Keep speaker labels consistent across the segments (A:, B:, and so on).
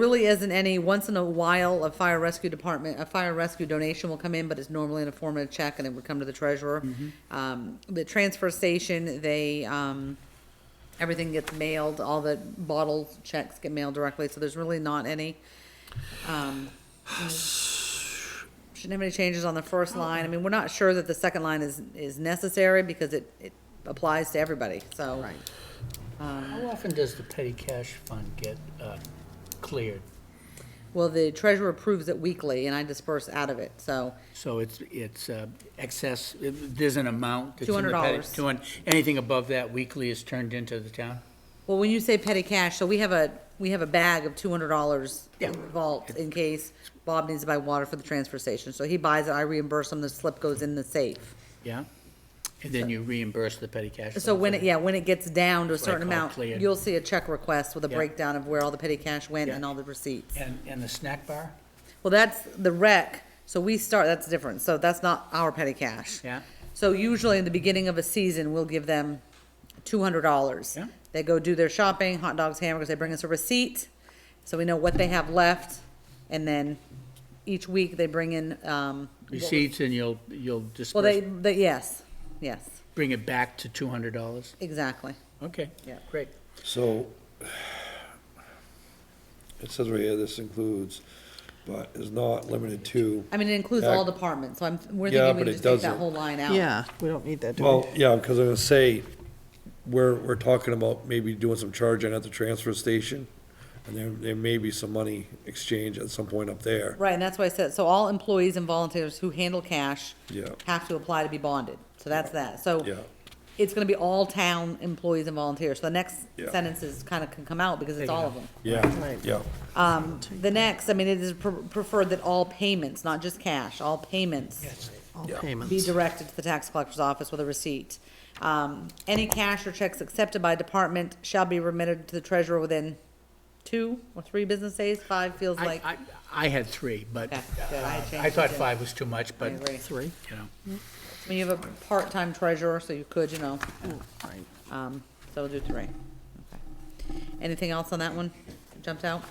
A: really isn't any, once in a while, a fire rescue department, a fire rescue donation will come in, but it's normally in the form of a check and it would come to the treasurer. Um, the transfer station, they, um, everything gets mailed, all the bottle checks get mailed directly, so there's really not any. Um, Shouldn't have any changes on the first line. I mean, we're not sure that the second line is, is necessary because it, it applies to everybody, so. Right.
B: How often does the petty cash fund get uh, cleared?
A: Well, the treasurer approves it weekly and I disperse out of it, so,
B: So it's, it's uh, excess, there's an amount that's in the
A: $200.
B: petty. $200. Anything above that weekly is turned into the town?
A: well, when you say petty cash, so we have a, we have a bag of two hundred dollars
B: Yeah.
A: vault in case Bob needs to buy water for the transfer station, so he buys it, I reimburse him, the slip goes in the safe.
B: Yeah? And then you reimburse the petty cash?
A: So
B: fund
A: when
B: for
A: it, yeah, when it gets down to a
B: what I
A: certain
B: call
A: amount,
B: cleared.
A: you'll see a check request with a
B: Yeah.
A: breakdown of where all the petty cash went
B: Yeah.
A: and all the receipts.
B: And, and the snack bar?
A: Well, that's the rec, so we start, that's different, so that's not our petty cash.
B: Yeah.
A: So usually in the beginning of a season, we'll give them two hundred dollars.
B: Yeah.
A: They go do their shopping, hot dogs, hamburgers, they bring us a receipt, so we know what they have left, and then each week they bring in, um,
B: Receipts and you'll, you'll
A: well, they,
B: disperse,
A: they, yes, yes,
B: bring it back to $200?
A: exactly.
B: Okay.
A: Yeah.
B: Great.
C: So, it says right here, this includes, but is not limited to,
A: I mean, it includes all
C: That-
A: departments, so I'm, we're
C: Yeah,
A: thinking we
C: but it
A: just take that
C: doesn't.
A: whole line out.
D: Yeah, we don't need that, do we?
C: well, yeah, because I'm gonna say, we're, we're talking about maybe doing some charging at the transfer station, and there, there may be some money exchange at some point up there.
A: Right, and that's why I said, so all employees and volunteers who handle cash
C: Yeah.
A: have to apply to be bonded. So that's that. So
C: Yeah.
A: it's gonna be all town employees and volunteers. So the next
C: Yeah.
A: sentence is kinda can come out because it's all of them.
C: Yeah,
D: Right.
C: yeah,
A: The next, I mean, it is pre- preferred that all payments, not just cash, all payments
D: All
C: yeah.
A: be
D: payments.
A: directed to the tax collector's office with a receipt. Um, any cash or checks accepted by department shall be remitted to the treasurer within two or three business days. Five feels
B: I,
A: like,
B: I, I had three, but
A: Okay, good. I
B: uh,
A: changed
B: I
A: it
B: thought
A: too.
B: five was too much, but,
A: agree.
D: Three,
B: you know.
A: I mean, you have a part-time treasurer, so you could, you know,
B: Oh,
D: right.
A: Um, so we'll do three. Okay. Anything else on that one? Jumped out?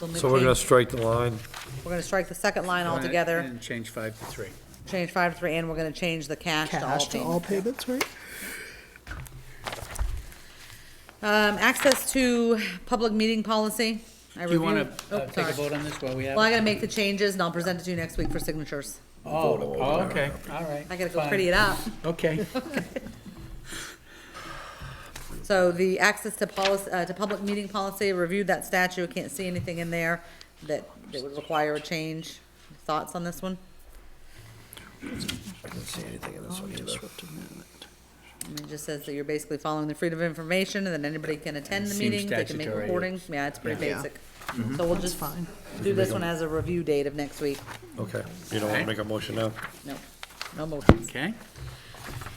A: We'll move
C: So we're gonna
A: change-
C: strike the line,
A: We're gonna strike the second line altogether,
B: And change five to three.
A: change five to three, and we're gonna change the cash to all
D: Cash to all
A: payments.
D: payments, right?
A: Um, access to public meeting policy. I
B: Do you
A: reviewed.
B: want
A: oh,
B: to uh, take
A: sorry.
B: a vote on this while we have?
A: Well, I
B: it?
A: gotta make the changes and I'll present it to you next week for signatures.
B: Oh, oh, okay, all right.
A: I gotta go
B: fine.
A: pretty it up.
B: Okay,
A: So the access to policy, uh, to public meeting policy, reviewed that statute, can't see anything in there that, that would require a change. Thoughts on this one?
C: I didn't see anything in this one either.
D: Disruptive movement.
A: I mean, It just says that you're basically following the freedom of information, and then anybody can attend the
B: Seems
A: meeting, they can make
B: statutory. Mm-hmm.
A: recordings, yeah, it's pretty
D: Yeah. Yeah.
A: basic. So we'll just
D: fine.
A: do this one as a review date of next week,
C: Okay, you don't wanna make a motion now?
A: no, no motions.
B: okay.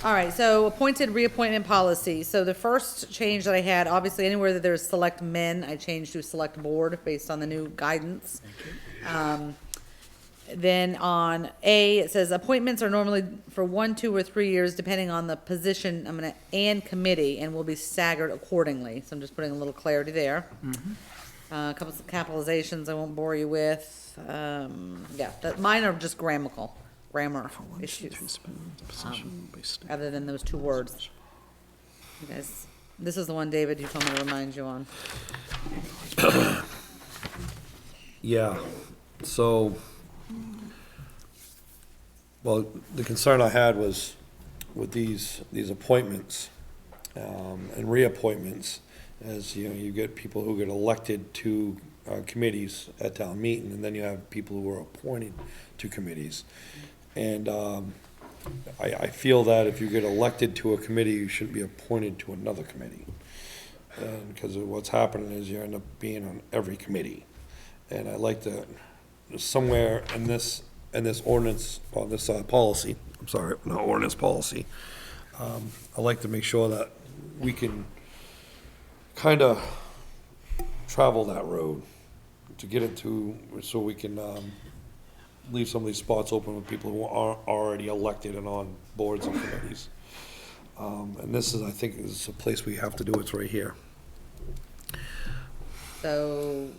A: All right, so appointed reappointment policy, so the first change that I had, obviously anywhere that there's select men, I changed to select board based on the new guidance. Um, Then on A, it says appointments are normally for one, two, or three years, depending on the position, I'm gonna, and committee, and will be staggered accordingly. So I'm just putting a little clarity there.
D: Mm-hmm.
A: Uh, a couple of capitalizations I won't bore you with. Um, yeah, that, mine are just grammatical, grammar
D: One, two,
A: issues,
D: three, spin, position, waste.
A: other than those two words. You guys, this is the one, David, you told me to remind you on.
C: Yeah, so, well, the concern I had was with these, these appointments, um, and reappointments, as, you know, you get people who get elected to, uh, committees at town meeting, and then you have people who are appointed to committees. And, um, I, I feel that if you get elected to a committee, you shouldn't be appointed to another committee. And, because of what's happening is you end up being on every committee. And I like to, somewhere in this, in this ordinance, or this, uh, policy, I'm sorry, not ordinance, policy, um, I like to make sure that we can kind of travel that road to get it to, so we can, um, leave some of these spots open with people who are already elected and on boards and committees. Um, and this is, I think, is a place we have to do, it's right here.
A: So